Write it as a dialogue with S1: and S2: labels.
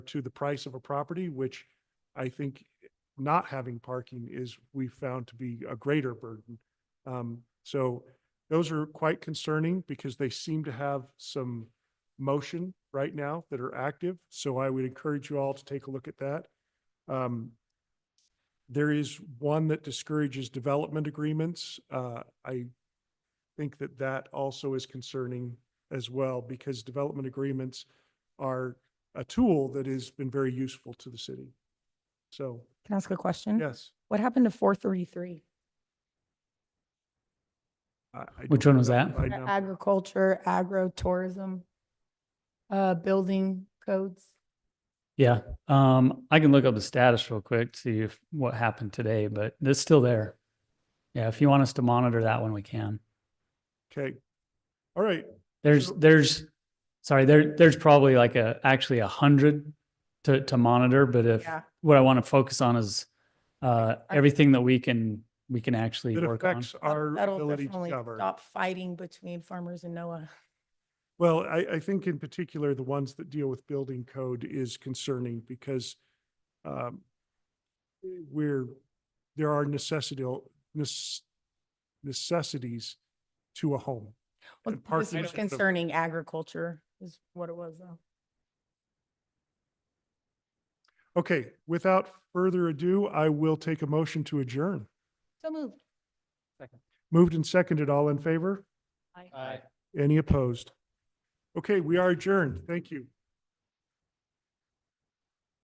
S1: to the price of a property, which I think not having parking is, we found to be a greater burden. Um, so those are quite concerning because they seem to have some motion right now that are active. So I would encourage you all to take a look at that. Um, there is one that discourages development agreements. Uh, I think that that also is concerning as well because development agreements are a tool that has been very useful to the city. So,
S2: Can I ask a question?
S1: yes.
S2: What happened to four thirty-three?
S1: I- I
S3: Which
S1: don't
S3: one was
S1: know
S3: that?
S1: by number.
S2: Agriculture, agro-tourism, uh, building codes.
S3: Yeah, um, I can look up the status real quick, see if what happened today, but it's still there. Yeah, if you want us to monitor that one, we can.
S1: Okay. All right.
S3: There's,
S1: So-
S3: there's, sorry, there, there's probably like a, actually a hundred to, to monitor, but if,
S2: Yeah.
S3: what I want to focus on is, uh,
S2: I-
S3: everything that we can, we can actually
S1: It
S3: work on.
S1: affects our
S2: That'll
S1: ability to
S2: definitely
S1: cover.
S2: Stop fighting between farmers and NOAA.
S1: Well, I, I think in particular, the ones that deal with building code is concerning because um, we're, there are necessity, nes- necessities to a home.
S2: Well,
S1: And parking
S2: This was
S1: should have-
S2: concerning agriculture is what it was though.
S1: Okay, without further ado, I will take a motion to adjourn.
S2: So moved.
S1: Moved and seconded, all
S2: uh,
S1: in favor? Any opposed? Okay, we are adjourned. Thank you.